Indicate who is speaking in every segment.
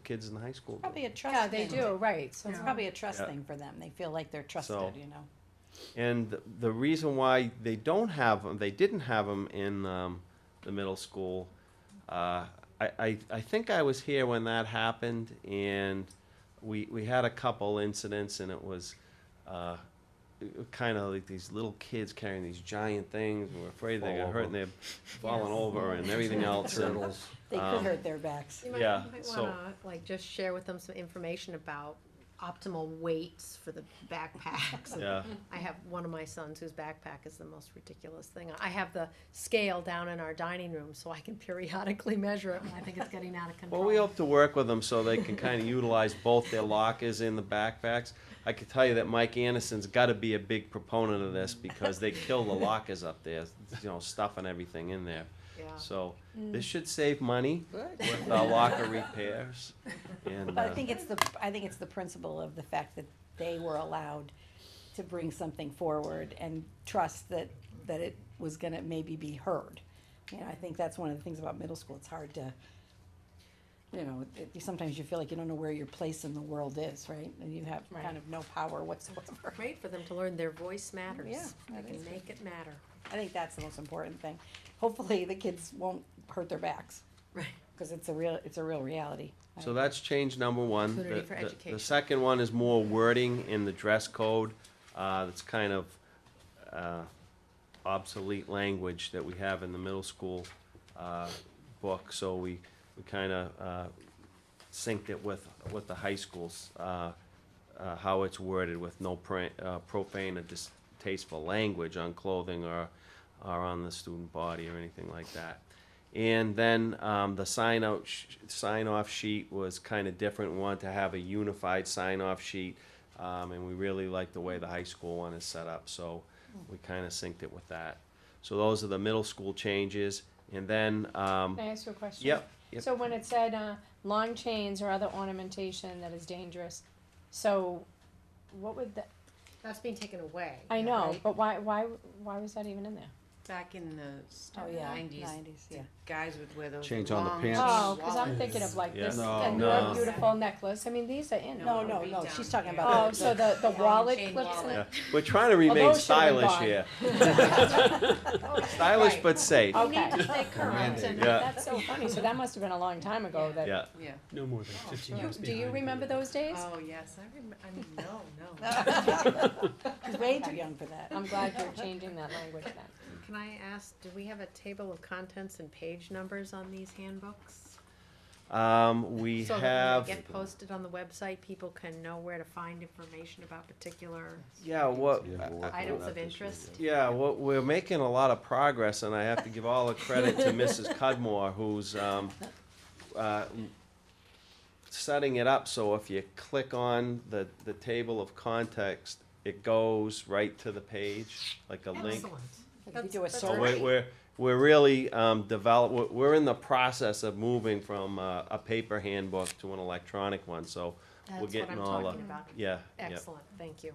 Speaker 1: kids in the high school do.
Speaker 2: Probably a trust
Speaker 3: Yeah, they
Speaker 2: thing.
Speaker 3: do, right, so.
Speaker 2: It's probably a trust
Speaker 1: Yeah.
Speaker 2: thing for them. They feel like they're
Speaker 1: So-
Speaker 2: trusted, you know?
Speaker 1: And th- the reason why they don't have them, they didn't have them in um, the middle school. Uh, I, I, I think I was here when that happened, and we, we had a couple incidents, and it was uh, kind of like these little kids carrying these giant things, and we're afraid they're
Speaker 4: Fall
Speaker 1: gonna hurt, and they're falling over and everything else. and-
Speaker 4: Turtles.
Speaker 2: They could
Speaker 1: Um,
Speaker 2: hurt their backs.
Speaker 5: You might,
Speaker 1: Yeah,
Speaker 5: you might
Speaker 1: so-
Speaker 5: wanna, like, just share with them some information about optimal weights for the backpacks. and
Speaker 1: Yeah.
Speaker 5: I have one of my sons whose backpack is the most ridiculous thing. I have the scale down in our dining room so I can periodically measure it when I think it's getting out of control.
Speaker 1: Well, we hope to work with them so they can kind of utilize both their lockers and the backpacks. I can tell you that Mike Anderson's got to be a big proponent of this because they kill the lockers up there, you know, stuffing everything in there.
Speaker 5: Yeah.
Speaker 1: So this should save money with uh, locker repairs. And
Speaker 2: But I
Speaker 1: uh,
Speaker 2: think it's the, I think it's the principle of the fact that they were allowed to bring something forward and trust that, that it was gonna maybe be heard. You know, I think that's one of the things about middle school, it's hard to, you know, it- it- sometimes you feel like you don't know where your place in the world is, right? And you have kind of no power whatsoever.
Speaker 5: Great for them to learn their voice matters.
Speaker 2: Yeah,
Speaker 5: They
Speaker 2: that
Speaker 5: can
Speaker 2: is-
Speaker 5: make it matter.
Speaker 2: I think that's the most important thing. Hopefully, the kids won't hurt their backs,
Speaker 5: Right.
Speaker 2: because it's a real, it's a real reality.
Speaker 1: so that's change number one. The-
Speaker 5: Opportunity for
Speaker 1: the-
Speaker 5: education.
Speaker 1: The second one is more wording in the dress code. uh, That's kind of uh, obsolete language that we have in the middle school uh, book, so we, we kind of synced it with, with the high schools, uh, uh, how it's worded with no pra- uh, profane or distasteful language on clothing or, or on the student body or anything like that. And then um, the sign out, sh- sign off sheet was kind of different, We wanted to have a unified sign off sheet. Um, and we really like the way the high school one is set up, so we kind of synced it with that. So those are the middle school changes, and then, um,
Speaker 3: Can I ask you a question?
Speaker 1: yep, yep.
Speaker 3: So when it said, uh, long chains or other ornamentation that is dangerous, so what would that,
Speaker 5: That's being taken away.
Speaker 3: I know,
Speaker 5: right?
Speaker 3: but why, why, why was that even in there?
Speaker 6: Back in the
Speaker 2: Oh, yeah,
Speaker 6: nineties,
Speaker 2: nineties, yeah.
Speaker 6: guys would wear those
Speaker 4: Change on the
Speaker 6: long
Speaker 4: pants.
Speaker 3: Oh,
Speaker 6: jean
Speaker 3: cause I'm
Speaker 6: wallets.
Speaker 3: thinking of like
Speaker 1: Yeah.
Speaker 3: this,
Speaker 4: No,
Speaker 3: and your
Speaker 1: no.
Speaker 3: beautiful necklace, I mean, these are in.
Speaker 2: No,
Speaker 6: No,
Speaker 2: no,
Speaker 6: read
Speaker 2: no,
Speaker 6: down
Speaker 2: she's talking
Speaker 6: here.
Speaker 2: about.
Speaker 3: Oh, so the, the
Speaker 6: Long
Speaker 3: wallet
Speaker 6: chain
Speaker 3: clips in
Speaker 6: wallet.
Speaker 3: it?
Speaker 1: We're trying to remain
Speaker 3: those should've been
Speaker 1: stylish
Speaker 3: gone.
Speaker 1: here.
Speaker 5: Oh,
Speaker 1: Stylish
Speaker 5: right.
Speaker 1: but safe,
Speaker 3: Oh,
Speaker 5: You need
Speaker 3: Okay.
Speaker 5: to stay current and
Speaker 1: Yeah.
Speaker 3: That's so funny, so that must have been a long time ago that.
Speaker 1: yeah.
Speaker 6: Yeah.
Speaker 7: No more than fifteen
Speaker 3: You,
Speaker 7: years
Speaker 3: do you
Speaker 7: behind.
Speaker 3: remember those days?
Speaker 6: Oh, yes, I remember, I mean, no, no.
Speaker 2: She's way too young for that.
Speaker 3: I'm glad you're changing that language then.
Speaker 5: Can I ask, do we have a table of contents and page numbers on these handbooks?
Speaker 1: Um, we
Speaker 5: So that
Speaker 1: have,
Speaker 5: when they get posted on the website, people can know where to find information about particular
Speaker 1: yeah, what,
Speaker 4: Yeah, we'll work on
Speaker 5: items
Speaker 4: that
Speaker 5: of
Speaker 4: this
Speaker 5: interest?
Speaker 4: weekend.
Speaker 1: yeah, what, we're making a lot of progress, and I have to give all the credit to Mrs. Cudmore, who's, um, uh, setting it up, so if you click on the, the table of context, it goes right to the page, like a link.
Speaker 5: Excellent.
Speaker 2: If you do a
Speaker 5: That's- that's
Speaker 1: So we're,
Speaker 2: search.
Speaker 1: we're, we're really, um, develop, we're, we're in the process of moving from, uh, a paper handbook to an electronic one, so we're
Speaker 5: That's what
Speaker 1: getting
Speaker 5: I'm
Speaker 1: all,
Speaker 5: talking
Speaker 1: the-
Speaker 5: about.
Speaker 1: yeah, yeah.
Speaker 5: Excellent, thank you.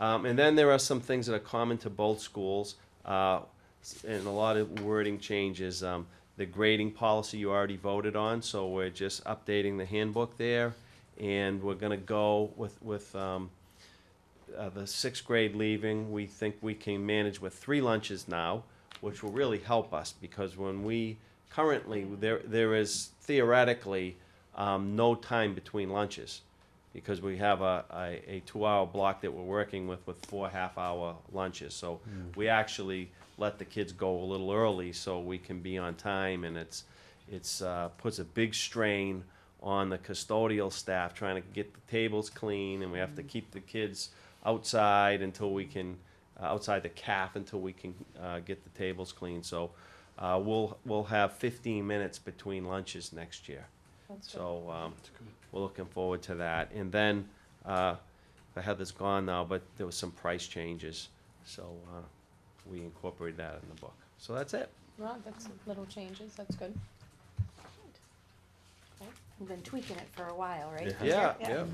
Speaker 1: Um, and then there are some things that are common to both schools, uh, s- and a lot of wording changes. Um, the grading policy you already voted on, so we're just updating the handbook there, and we're gonna go with, with, um, uh, the sixth grade leaving, we think we can manage with three lunches now, which will really help us, because when we, currently, there, there is theoretically, um, no time between lunches because we have a, a, a two-hour block that we're working with with four half-hour lunches. So we actually let the kids go a little early so we can be on time, and it's it's uh, puts a big strain on the custodial staff trying to get the tables clean, and we have to keep the kids outside until we can uh, outside the calf until we can uh, get the tables clean. So. Uh, we'll we'll have 15 minutes between lunches next year, so um, we're looking forward to that. And then, uh, I had this gone now, but there was some price changes, so, uh, we incorporated that in the book. So that's it.
Speaker 3: Well, that's little changes, that's good.
Speaker 2: We've been tweaking it for a while, right?
Speaker 1: Yeah, yeah.